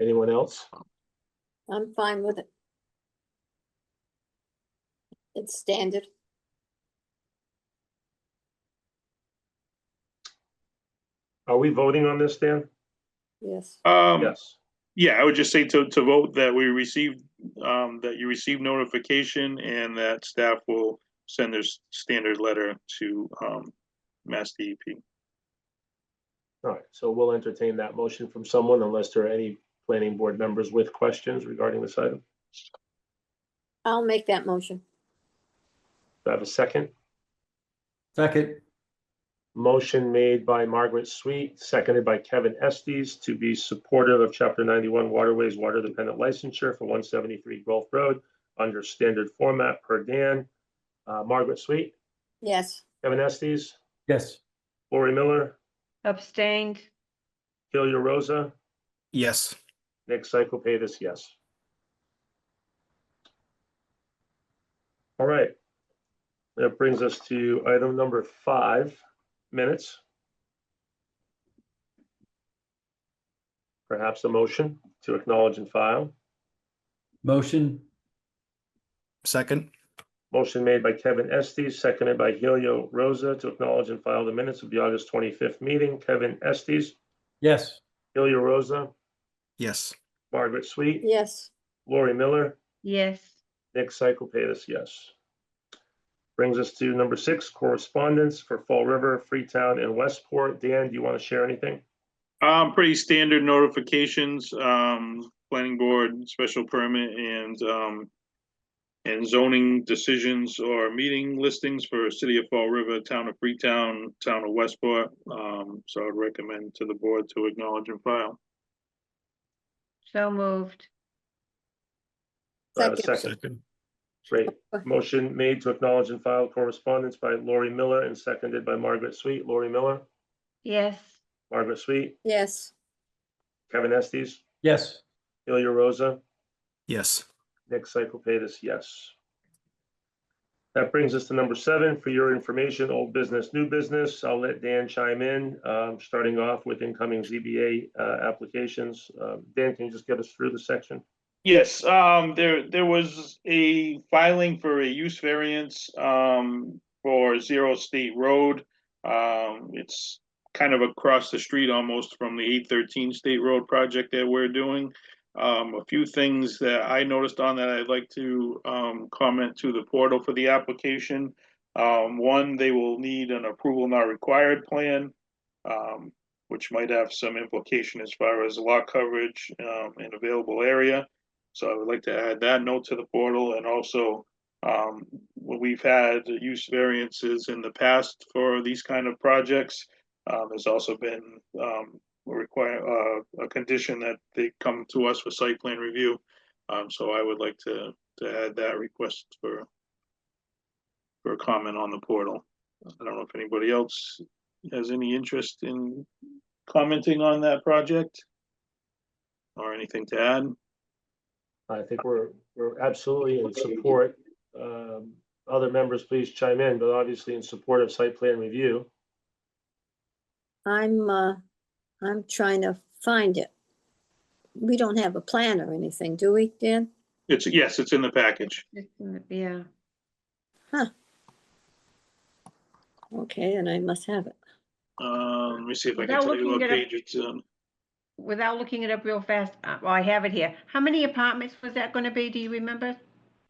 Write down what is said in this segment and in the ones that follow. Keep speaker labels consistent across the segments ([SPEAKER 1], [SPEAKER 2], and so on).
[SPEAKER 1] Anyone else?
[SPEAKER 2] I'm fine with it. It's standard.
[SPEAKER 1] Are we voting on this, Dan?
[SPEAKER 2] Yes,
[SPEAKER 3] Um,
[SPEAKER 1] Yes.
[SPEAKER 3] yeah, I would just say to, to vote that we received, um, that you received notification and that staff will send their s- standard letter to, um, Mass DEP.
[SPEAKER 1] All right, so we'll entertain that motion from someone unless there are any planning board members with questions regarding this item.
[SPEAKER 2] I'll make that motion.
[SPEAKER 1] Do I have a second?
[SPEAKER 4] Second,
[SPEAKER 1] Motion made by Margaret Sweet, seconded by Kevin Estes to be supportive of Chapter 91 Waterways Water Dependent Licensure for 173 Gulf Road under standard format per Dan. Uh, Margaret Sweet,
[SPEAKER 2] Yes,
[SPEAKER 1] Kevin Estes,
[SPEAKER 4] yes.
[SPEAKER 1] Lori Miller,
[SPEAKER 5] Abstained,
[SPEAKER 1] Delia Rosa,
[SPEAKER 6] Yes.
[SPEAKER 1] Nick Cyclepatis, yes. All right. That brings us to item number five, minutes. Perhaps a motion to acknowledge and file.
[SPEAKER 4] Motion,
[SPEAKER 6] Second?
[SPEAKER 1] Motion made by Kevin Estes, seconded by Helio Rosa to acknowledge and file the minutes of the August 25th meeting. Kevin Estes,
[SPEAKER 4] yes.
[SPEAKER 1] Helio Rosa,
[SPEAKER 6] Yes.
[SPEAKER 1] Margaret Sweet,
[SPEAKER 2] yes,
[SPEAKER 1] Lori Miller,
[SPEAKER 5] yes,
[SPEAKER 1] Nick Cyclepatis, yes. Brings us to number six, correspondence for Fall River, Freetown, and Westport. Dan, do you want to share anything?
[SPEAKER 3] Um, pretty standard notifications, um, planning board, special permit and, um, and zoning decisions or meeting listings for City of Fall River, Town of Freetown, Town of Westport. Um, so I'd recommend to the board to acknowledge and file.
[SPEAKER 5] so moved,
[SPEAKER 1] Do I have a
[SPEAKER 2] Second.
[SPEAKER 1] Second. Great. Motion made to acknowledge and file correspondence by Lori Miller and seconded by Margaret Sweet. Lori Miller,
[SPEAKER 5] yes,
[SPEAKER 1] Margaret Sweet,
[SPEAKER 2] yes,
[SPEAKER 1] Kevin Estes,
[SPEAKER 4] Yes,
[SPEAKER 1] Ilya Rosa,
[SPEAKER 6] Yes.
[SPEAKER 1] Nick Cyclepatis, yes. That brings us to number seven, for your information, old business, new business. I'll let Dan chime in, um, starting off with incoming ZBA uh, applications. Um, Dan, can you just get us through the section?
[SPEAKER 3] Yes, um, there, there was a filing for a use variance, um, for Zero State Road. Um, it's kind of across the street almost from the eight thirteen State Road project that we're doing. Um, a few things that I noticed on that I'd like to, um, comment to the portal for the application. Um, one, they will need an approval not required plan. Um, which might have some implication as far as lot coverage, um, and available area. So I would like to add that note to the portal and also um, when we've had use variances in the past for these kind of projects. Um, there's also been um, a require, uh, a condition that they come to us for site plan review. Um, so I would like to, to add that request for for a comment on the portal. I don't know if anybody else has any interest in commenting on that project or anything to add.
[SPEAKER 1] I think we're, we're absolutely in support. Um, Other members, please chime in, but obviously in support of site plan review.
[SPEAKER 2] I'm, uh, I'm trying to find it. We don't have a plan or anything, do we, Dan?
[SPEAKER 3] It's, yes, it's in the package.
[SPEAKER 5] It's in the- yeah,
[SPEAKER 2] Okay, and I must have it.
[SPEAKER 3] Um, let me see if I can
[SPEAKER 5] Without
[SPEAKER 3] tell you what
[SPEAKER 5] looking it up-
[SPEAKER 3] page it's on.
[SPEAKER 5] without looking it up real fast, uh, well, I have it here, how many apartments was that gonna be, do you remember?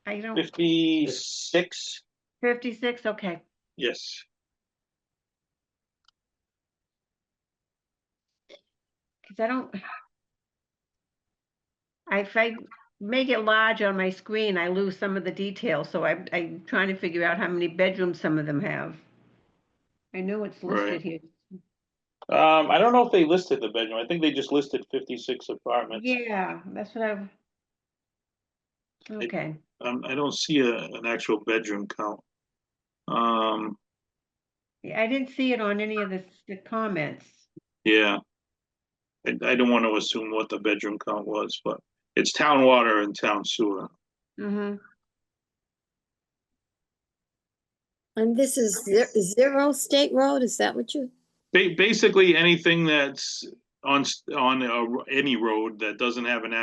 [SPEAKER 5] I don't,
[SPEAKER 3] Fifty-six?
[SPEAKER 5] fifty-six, okay,
[SPEAKER 3] Yes.
[SPEAKER 5] cause I don't. I- If I make it large on my screen, I lose some of the details, so I'm, I'm trying to figure out how many bedrooms some of them have. I know it's
[SPEAKER 3] Right.
[SPEAKER 5] listed here.
[SPEAKER 3] Um, I don't know if they listed the bedroom. I think they just listed fifty-six apartments.
[SPEAKER 5] Yeah, that's what I've. Okay,
[SPEAKER 3] Um, I don't see a, an actual bedroom count. Um,
[SPEAKER 5] Yeah, I didn't see it on any of the, the comments.
[SPEAKER 3] yeah. I, I don't want to assume what the bedroom count was, but it's town water and town sewer.
[SPEAKER 5] Mm-hmm,
[SPEAKER 2] And this is ze- zero State Road, is that what you,
[SPEAKER 3] Ba- basically, anything that's on, s- on, uh, any road that doesn't have an